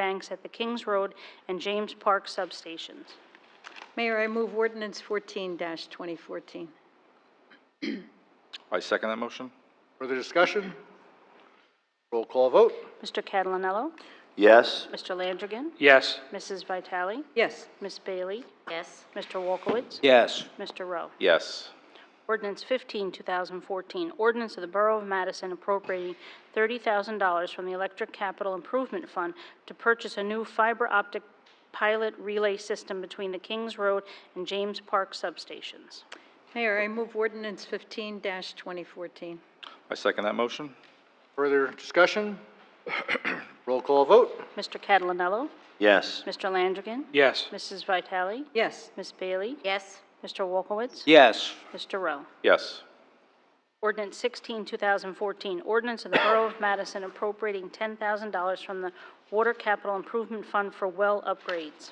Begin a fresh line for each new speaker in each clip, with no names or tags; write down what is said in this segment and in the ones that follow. tanks at the Kings Road and James Park substations.
Mayor, I move ordinance 14-2014.
I second that motion.
Further discussion? Roll call vote?
Mr. Catalonello?
yes,
Mr. Landrigan?
Yes.
Mrs. Vitale?
Yes.
Ms. Bailey?
yes,
Mr. Wolkowitz?
yes,
Mr. Rowe?
Yes.
Ordinance 15, 2014, ordinance of the Borough of Madison appropriating $30,000 from the Electric Capital Improvement Fund to purchase a new fiber optic pilot relay system between the Kings Road and James Park substations.
Mayor, I move ordinance 15-2014.
I second that motion.
Further discussion? Roll call vote?
Mr. Catalonello?
yes,
Mr. Landrigan?
Yes.
Mrs. Vitale?
Yes.
Ms. Bailey?
yes,
Mr. Wolkowitz?
yes,
Mr. Rowe?
Yes.
Ordinance 16, 2014, ordinance of the Borough of Madison appropriating $10,000 from the Water Capital Improvement Fund for well upgrades.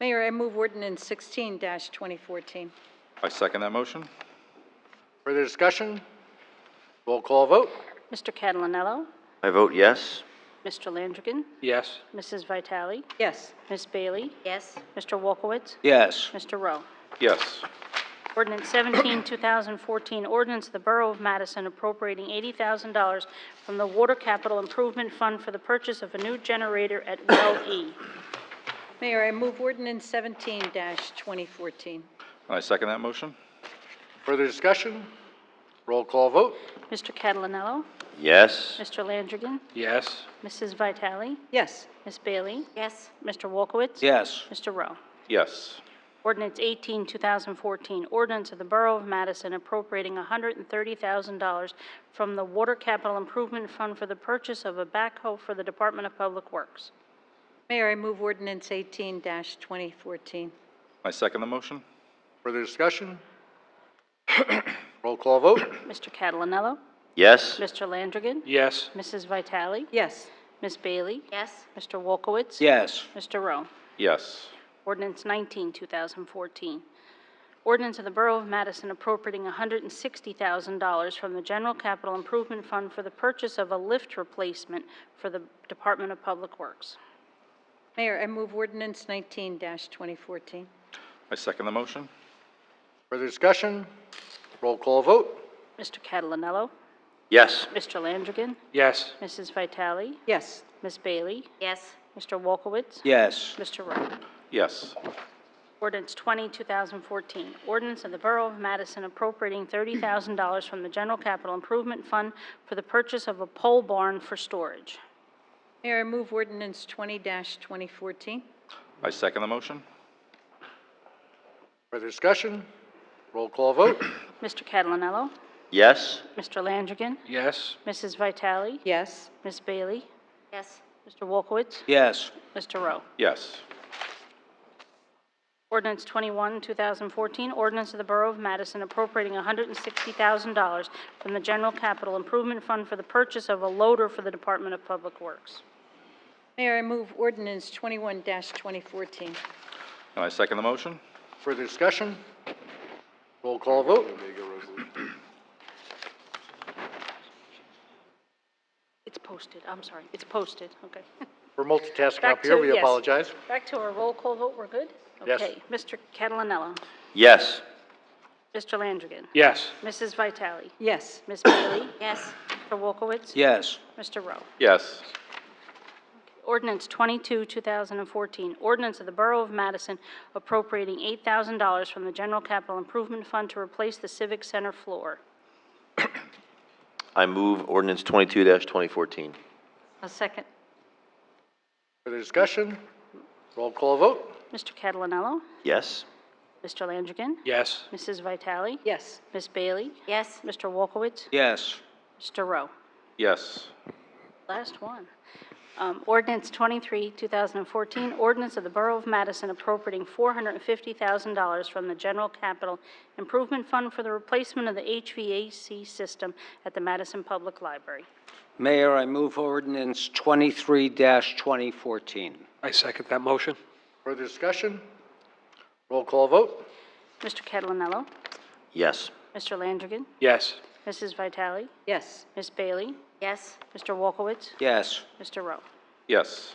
Mayor, I move ordinance 16-2014.
I second that motion.
Further discussion? Roll call vote?
Mr. Catalonello?
I vote yes,
Mr. Landrigan?
Yes.
Mrs. Vitale?
Yes.
Ms. Bailey?
yes,
Mr. Wolkowitz?
yes,
Mr. Rowe?
Yes.
Ordinance 17, 2014, ordinance of the Borough of Madison appropriating $80,000 from the Water Capital Improvement Fund for the purchase of a new generator at Well E.
Mayor, I move ordinance 17-2014.
And I second that motion.
Further discussion? Roll call vote?
Mr. Catalonello?
yes,
Mr. Landrigan?
Yes.
Mrs. Vitale?
Yes.
Ms. Bailey?
yes,
Mr. Wolkowitz?
yes,
Mr. Rowe?
Yes.
Ordinance 18, 2014, ordinance of the Borough of Madison appropriating $130,000 from the Water Capital Improvement Fund for the purchase of a backhoe for the Department of Public Works.
Mayor, I move ordinance 18-2014.
I second the motion.
Further discussion? Roll call vote?
Mr. Catalonello?
yes,
Mr. Landrigan?
Yes.
Mrs. Vitale?
Yes.
Ms. Bailey?
yes,
Mr. Wolkowitz?
yes,
Mr. Rowe?
Yes.
Ordinance 19, 2014. Ordinance of the Borough of Madison appropriating $160,000 from the General Capital Improvement Fund for the purchase of a lift replacement for the Department of Public Works.
Mayor, I move ordinance 19-2014.
I second the motion.
Further discussion? Roll call vote?
Mr. Catalonello?
yes,
Mr. Landrigan?
Yes.
Mrs. Vitale?
Yes.
Ms. Bailey?
yes,
Mr. Wolkowitz?
yes,
Mr. Rowe?
Yes.
Ordinance 20, 2014, ordinance of the Borough of Madison appropriating $30,000 from the General Capital Improvement Fund for the purchase of a pole barn for storage.
Mayor, I move ordinance 20-2014.
I second the motion.
Further discussion? Roll call vote?
Mr. Catalonello?
yes,
Mr. Landrigan?
Yes.
Mrs. Vitale?
Yes.
Ms. Bailey?
yes,
Mr. Wolkowitz?
yes,
Mr. Rowe?
Yes.
Ordinance 21, 2014, ordinance of the Borough of Madison appropriating $160,000 from the General Capital Improvement Fund for the purchase of a loader for the Department of Public Works.
Mayor, I move ordinance 21-2014.
And I second the motion.
Further discussion? Roll call vote?
It's posted, I'm sorry, it's posted, okay.
We're multitasking
Back
up
to
here, we
yes.
apologize.
Back to our roll call vote, we're good?
Yes.
Okay, Mr. Catalonello?
yes,
Mr. Landrigan?
Yes.
Mrs. Vitale?
Yes.
Ms. Bailey?
yes,
Mr. Wolkowitz?
yes,
Mr. Rowe?
Yes.
Ordinance 22, 2014, ordinance of the Borough of Madison appropriating $8,000 from the General Capital Improvement Fund to replace the Civic Center floor.
I move ordinance twenty-two twenty fourteen.
A second.
Further discussion? Roll call vote?
Mr. Catalonello?
Yes,
Mr. Landrigan?
Yes.
Mrs. Vitale?
Yes.
Ms. Bailey?
yes,
Mr. Wolkowitz?
yes,
Mr. Rowe?
Yes.
Last one. Um, Ordinance 23, 2014, ordinance of the Borough of Madison appropriating $450,000 from the General Capital Improvement Fund for the replacement of the HVAC system at the Madison Public Library.
Mayor, I move ordinance 23-2014.
I second that motion.
Further discussion? Roll call vote?
Mr. Catalonello?
yes,
Mr. Landrigan?
Yes.
Mrs. Vitale?
Yes.
Ms. Bailey?
yes,
Mr. Wolkowitz?
Yes.
Mr. Rowe?
Yes.